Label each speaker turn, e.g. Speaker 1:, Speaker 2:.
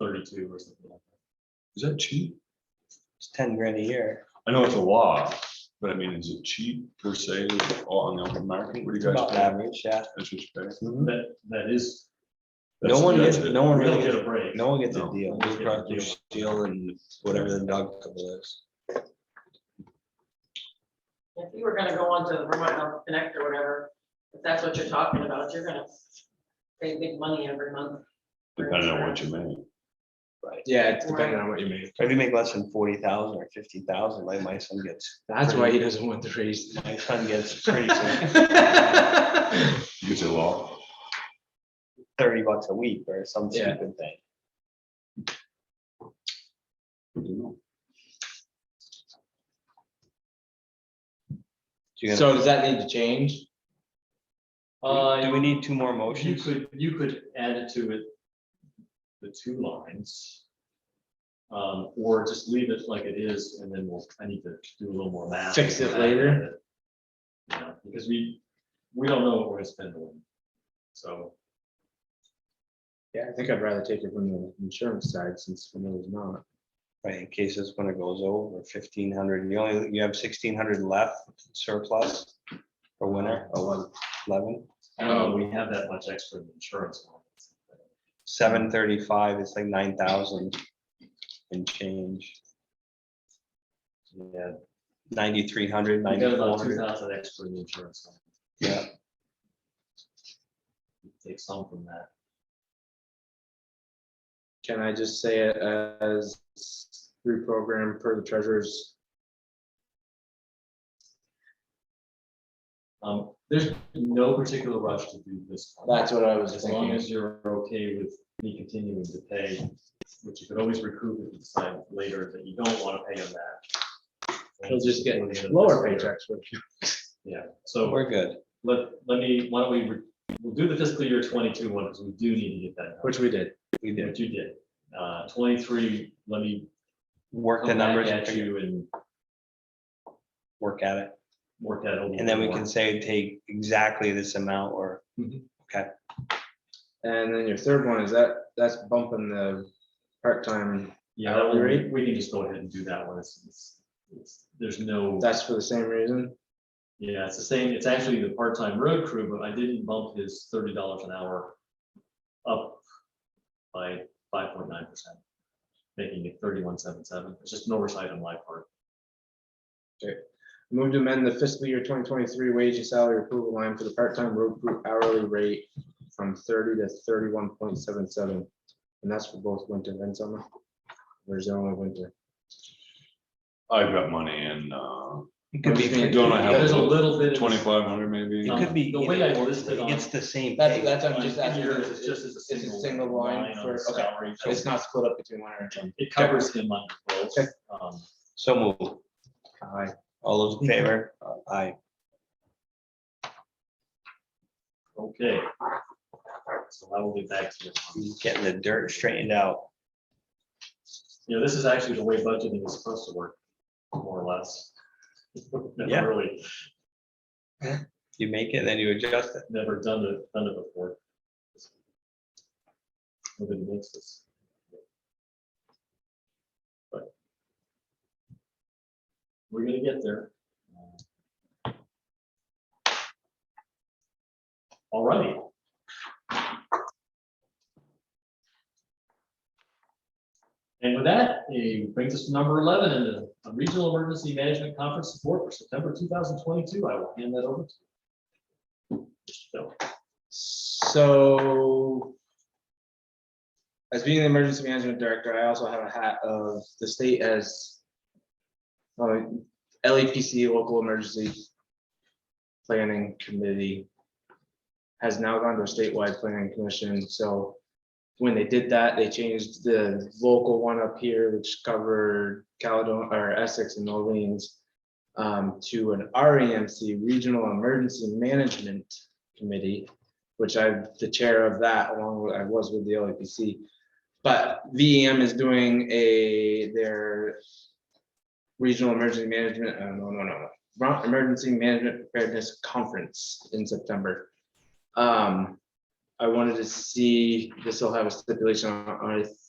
Speaker 1: thirty-two or something like that.
Speaker 2: Is that cheap?
Speaker 3: It's ten grand a year.
Speaker 2: I know it's a law, but I mean, is it cheap per se on the open market? What do
Speaker 3: It's
Speaker 2: you guys?
Speaker 3: about
Speaker 2: pay?
Speaker 3: average, yeah.
Speaker 2: That's what you pay?
Speaker 1: That, that is.
Speaker 3: No one
Speaker 2: That's-
Speaker 3: gets, no one
Speaker 1: We don't
Speaker 3: really
Speaker 1: get
Speaker 3: gets,
Speaker 1: a break.
Speaker 3: no one gets a
Speaker 2: No.
Speaker 3: deal.
Speaker 1: We don't get a
Speaker 3: Proctor
Speaker 1: deal.
Speaker 3: Steel and whatever the dog couple is.
Speaker 4: If you were gonna go on to the Vermont Health Connect or whatever, if that's what you're talking about, you're gonna pay big money every month. for
Speaker 2: Depending on what
Speaker 4: insurance.
Speaker 2: you make.
Speaker 5: Yeah, it's depending on what you make.
Speaker 3: If you make less than forty thousand or fifty thousand, like my son gets,
Speaker 5: That's why he doesn't want the raise.
Speaker 3: my son gets pretty soon
Speaker 2: You could say law.
Speaker 3: thirty bucks a week or some
Speaker 5: Yeah.
Speaker 3: stupid thing.
Speaker 2: I don't know.
Speaker 3: Do you-
Speaker 5: So does that need to change?
Speaker 3: Do we need two more
Speaker 1: You
Speaker 3: motions?
Speaker 1: Uh, could, you could add it to it, the two lines. Um, or just leave it like it is, and then we'll, I need to do a little more math.
Speaker 5: Fix it later.
Speaker 1: Yeah, Because we, we don't know what we're gonna spend on, so.
Speaker 5: Yeah, I think I'd rather take it from the insurance side since we know it's not.
Speaker 3: Right, in case this winter goes over fifteen hundred, you only, you have sixteen hundred left surplus for winter, eleven, eleven,
Speaker 1: I don't know, we have that much extra in insurance.
Speaker 3: seven thirty-five, it's like nine thousand and change,
Speaker 1: Yeah,
Speaker 3: ninety-three hundred,
Speaker 1: we got
Speaker 3: ninety-four
Speaker 1: about two
Speaker 3: hundred,
Speaker 1: thousand extra in insurance.
Speaker 3: yeah.
Speaker 1: Take some from that.
Speaker 5: Can I just say it as reprogram per the treasurer's?
Speaker 1: Um, there's no particular rush to do this. one.
Speaker 5: That's what I was
Speaker 1: As long
Speaker 5: thinking.
Speaker 1: as you're okay with me continuing to pay, which you could always recoup if you decide later that you don't want to pay them that.
Speaker 5: He'll just get
Speaker 1: Before the end of
Speaker 5: lower
Speaker 1: this year.
Speaker 5: paychecks, which
Speaker 1: Yeah, so
Speaker 3: We're good.
Speaker 1: let, let me, why don't we, re- we'll do the fiscal year twenty-two one, because we do need to get that.
Speaker 5: which we did.
Speaker 3: We did.
Speaker 1: What you did, uh, twenty-three, let me
Speaker 3: Work the
Speaker 1: come back
Speaker 3: numbers and
Speaker 1: at
Speaker 3: figure,
Speaker 1: you and
Speaker 3: work at it.
Speaker 1: work that a little.
Speaker 3: And then we
Speaker 1: bit more.
Speaker 3: can say, take exactly this amount or
Speaker 5: And then your third one is that, that's bumping the part-time,
Speaker 1: Yeah, that one, we,
Speaker 5: Rate?
Speaker 1: we can just go ahead and do that one, it's, it's, it's, there's no.
Speaker 5: that's for the same reason.
Speaker 1: Yeah, it's the same, it's actually the part-time road crew, but I didn't bump his thirty dollars an hour up by five point nine percent, making it thirty-one seven seven, it's just an oversight on my part.
Speaker 5: Move to amend the fiscal year twenty twenty-three wage and salary approval line for the part-time road crew hourly rate from thirty to thirty-one point seven seven. And that's for both winter and summer. There's only winter.
Speaker 2: I've got money in, uh,
Speaker 3: it could be,
Speaker 5: Understand.
Speaker 3: it
Speaker 2: don't I
Speaker 1: There's
Speaker 2: have
Speaker 1: a little bit.
Speaker 2: twenty-five hundred maybe?
Speaker 1: Um,
Speaker 3: could be.
Speaker 1: the way I
Speaker 3: either or,
Speaker 1: listed
Speaker 3: but
Speaker 1: on-
Speaker 3: It's the same
Speaker 5: That's,
Speaker 3: thing.
Speaker 5: that's, I'm just asking,
Speaker 1: Here,
Speaker 5: it's
Speaker 1: it's just as
Speaker 5: it's a single line
Speaker 1: on
Speaker 5: for,
Speaker 1: his
Speaker 5: okay,
Speaker 1: salary, so
Speaker 5: it's not split up between winter and summer.
Speaker 1: It covers him under both.
Speaker 5: Okay.
Speaker 1: Um,
Speaker 3: So move.
Speaker 5: Aye.
Speaker 3: All those in favor? Aye.
Speaker 1: Okay. So I will get back to you.
Speaker 3: He's Getting the dirt straightened out.
Speaker 1: You know, this is actually the way budgeting is supposed to work, more or less. Never
Speaker 3: Yeah.
Speaker 1: Really.
Speaker 3: You make it, then you adjust it.
Speaker 1: never done it, done it before. Nobody makes this. But We're gonna get there. All right. And with that, it brings us to number eleven, in the a Regional Emergency Management Conference support for September two thousand twenty-two. I will hand that over to Bill.
Speaker 5: So. As being the emergency management director, I also have a hat of the state as. uh, LEPC, local emergency. Planning committee. Has now gone to a statewide planning commission, so. When they did that, they changed the local one up here, which covered Caledonia or Essex and Orleans. um, to an REMC, Regional Emergency Management Committee which I'm the chair of that along with, I was with the LAPC. But VEM is doing a, their regional emergency management, uh, no, no, no, no, Vermont Emergency Management Preparedness Conference in September. Um, I wanted to see, this will have a stipulation on, on- I